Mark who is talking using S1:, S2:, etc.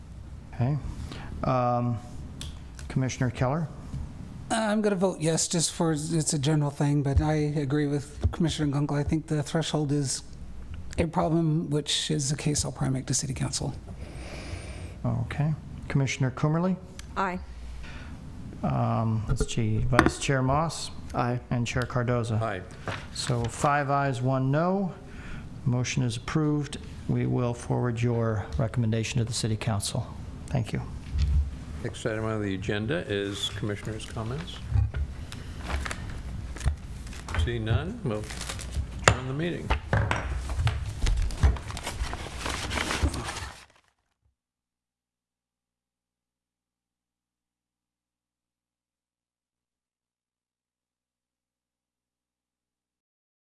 S1: Okay. Um, Commissioner Keller?
S2: I'm going to vote yes, just for, it's a general thing, but I agree with Commissioner Gunkel. I think the threshold is a problem, which is the case I'll probably make to city council.
S1: Okay. Commissioner Coomerly?
S3: Aye.
S1: Um, Let's see, Vice Chair Moss
S4: Aye.
S1: and Chair Cardoza.
S5: Aye.
S1: So five ayes, one no. Motion is approved. We will forward your recommendation to the City Council. Thank you.
S5: Next item on the agenda is commissioners' comments. See none, we'll adjourn the meeting.